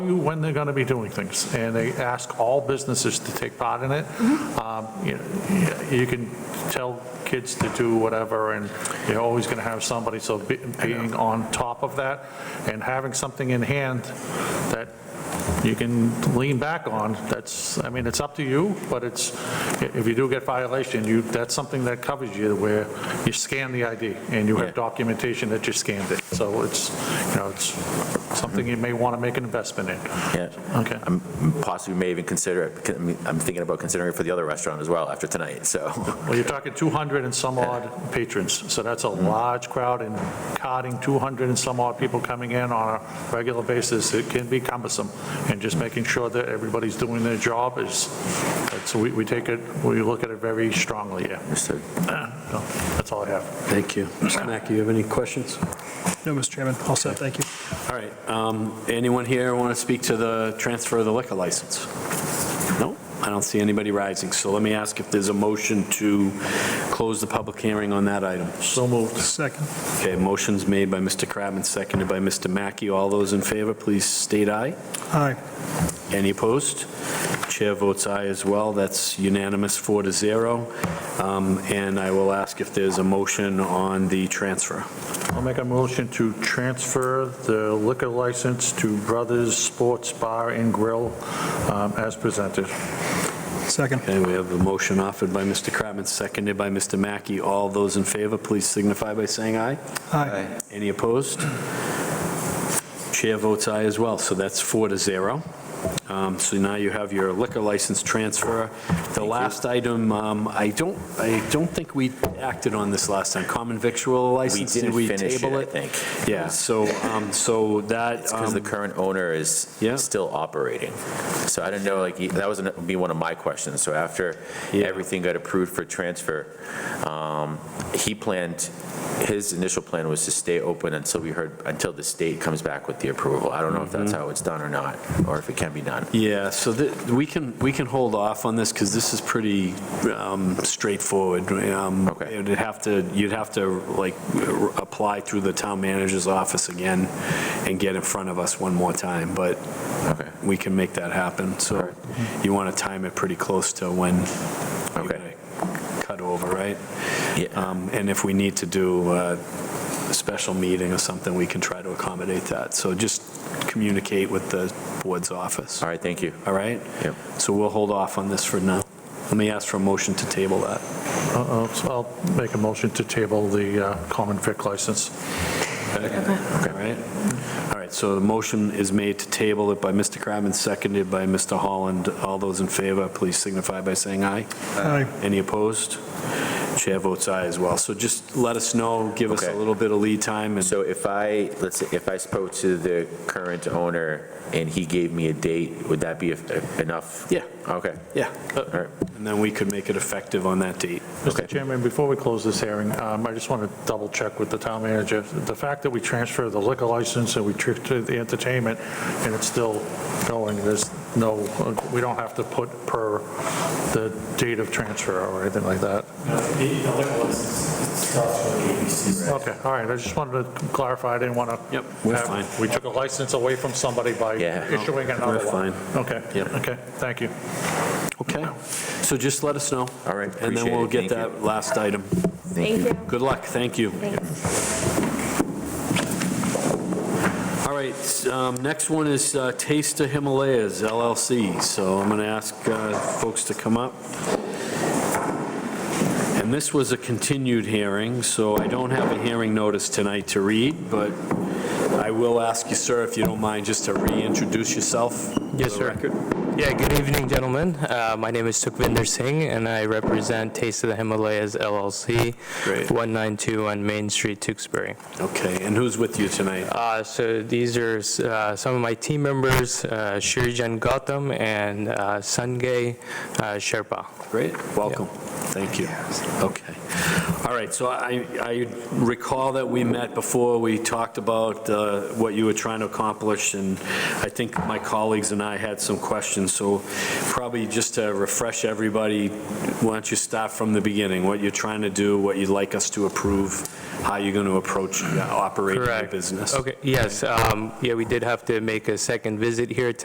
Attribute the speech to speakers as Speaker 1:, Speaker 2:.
Speaker 1: you when they're going to be doing things, and they ask all businesses to take part in it. Um, You know, you can tell kids to do whatever, and you're always going to have somebody, so be- being on top of that and having something in hand that you can lean back on, that's, I mean, it's up to you, but it's, if you do get violation, you, that's something that covers you, where you scan the ID, and you
Speaker 2: Yeah.
Speaker 1: have documentation that you scanned it, so it's, you know, it's something you may want to make an investment in.
Speaker 2: Yeah,
Speaker 1: Okay.
Speaker 2: I'm possibly may even consider it, because I'm- I'm thinking about considering it for the other restaurant as well after tonight, so.
Speaker 1: Well, you're talking 200 and some odd patrons, so that's a large crowd, and carding 200 and some odd people coming in on a regular basis, it can be cumbersome, and just making sure that everybody's doing their job is, that's, we we take it, we look at it very strongly, yeah.
Speaker 2: Understood.
Speaker 1: So, That's all I have.
Speaker 3: Thank you. Mr. Mackey, you have any questions?
Speaker 4: No, Mr. Chairman, all set, thank you.
Speaker 3: All right, um, anyone here want to speak to the transfer of the liquor license? No, I don't see anybody rising, so let me ask if there's a motion to close the public hearing on that item.
Speaker 1: So moved.
Speaker 4: Second.
Speaker 3: Okay, motion's made by Mr. Kratman, seconded by Mr. Mackey. All those in favor, please state aye.
Speaker 4: Aye.
Speaker 3: Any opposed? Chair votes aye as well. That's unanimous, four to zero. Um, And I will ask if there's a motion on the transfer.
Speaker 1: I'll make a motion to transfer the liquor license to Brothers Sports Bar and Grill um, as presented.
Speaker 4: Second.
Speaker 3: Okay, we have a motion offered by Mr. Kratman, seconded by Mr. Mackey. All those in favor, please signify by saying aye.
Speaker 4: Aye.
Speaker 3: Any opposed? Chair votes aye as well, so that's four to zero. Um, So now you have your liquor license transfer. The last item, um, I don't, I don't think we acted on this last time, common victual
Speaker 2: We
Speaker 3: license, did
Speaker 2: didn't
Speaker 3: we
Speaker 2: finish it,
Speaker 3: table
Speaker 2: I
Speaker 3: it?
Speaker 2: think.
Speaker 3: Yeah, so, um, so that,
Speaker 2: It's because the
Speaker 3: um,
Speaker 2: current owner is
Speaker 3: Yeah.
Speaker 2: still operating. So I don't know, like, that was, gonna be one of my questions. So after
Speaker 3: Yeah.
Speaker 2: everything got approved for transfer, um, he planned, his initial plan was to stay open until we heard, until the state comes back with the approval. I don't know if
Speaker 3: Mm-hmm.
Speaker 2: that's how it's done or not, or if it can be done.
Speaker 3: yeah, so that, we can, we can hold off on this because this is pretty um, straightforward. Um,
Speaker 2: Okay.
Speaker 3: You'd have to, you'd have to, like, r- apply through the town manager's office again and get in front of us one more time, but
Speaker 2: Okay.
Speaker 3: we can make that happen. So you want to time it pretty close to when you're
Speaker 2: Okay.
Speaker 3: going to cut over, right?
Speaker 2: Yeah.
Speaker 3: Um, And if we need to do uh, a special meeting or something, we can try to accommodate that. So just communicate with the board's office,
Speaker 2: All right, thank you.
Speaker 3: all right?
Speaker 2: Yep.
Speaker 3: So we'll hold off on this for now. Let me ask for a motion to table that.
Speaker 1: Uh, uh, so I'll make a motion to table the uh, common vic license.
Speaker 3: All right? All right, so the motion is made to table it by Mr. Kratman, seconded by Mr. Holland. All those in favor, please signify by saying aye.
Speaker 4: Aye.
Speaker 3: Any opposed? Chair votes aye as well. So just let us know, give us a
Speaker 2: Okay.
Speaker 3: little bit of lead time, and
Speaker 2: So if I, let's say, if I spoke to the current owner and he gave me a date, would that be enough?
Speaker 3: Yeah.
Speaker 2: Okay,
Speaker 3: yeah,
Speaker 2: all right.
Speaker 3: and then we could make it effective on that date.
Speaker 1: Mr. Chairman, before we close this hearing, um, I just want to double check with the town manager. The fact that we transfer the liquor license and we transfer the entertainment, and it's still going, there's no, we don't have to put per the date of transfer or anything like that. Okay, all right, I just wanted to clarify, I didn't want to.
Speaker 3: Yep, we're fine.
Speaker 1: We took a license away from somebody by
Speaker 2: Yeah.
Speaker 1: issuing another
Speaker 3: We're
Speaker 1: one.
Speaker 3: fine.
Speaker 1: Okay,
Speaker 3: Yep.
Speaker 1: okay, thank you.
Speaker 3: Okay, so just let us know.
Speaker 2: All right,
Speaker 3: And
Speaker 2: appreciate
Speaker 3: then we'll
Speaker 2: it.
Speaker 3: get
Speaker 2: Thank
Speaker 3: that last item.
Speaker 5: Thank you.
Speaker 3: Good luck, thank you. All right, um, next one is uh, Taste of Himalayas LLC, so I'm going to ask uh, folks to come up. And this was a continued hearing, so I don't have a hearing notice tonight to read, but I will ask you, sir, if you don't mind, just to reintroduce yourself. for
Speaker 6: Yes,
Speaker 3: the
Speaker 6: sir.
Speaker 3: record.
Speaker 6: Yeah, good evening, gentlemen. Uh, My name is Sukhvinder Singh, and I represent Taste of the Himalayas LLC,
Speaker 3: Great.
Speaker 6: 192 on Main Street, Tewksbury.
Speaker 3: Okay, and who's with you tonight?
Speaker 6: Uh, So these are uh, some of my team members, uh, Shirijan Gautam and uh, Sungay uh, Sherpa.
Speaker 3: Great, welcome. Thank you. Okay. All right, so I I recall that we met before, we talked about uh, what you were trying to accomplish, and I think my colleagues and I had some questions, so probably just to refresh everybody, why don't you start from the beginning, what you're trying to do, what you'd like us to approve how you're going to approach uh, operating the
Speaker 6: Correct.
Speaker 3: business.
Speaker 6: Okay, yes, um, yeah, we did have to make a second visit here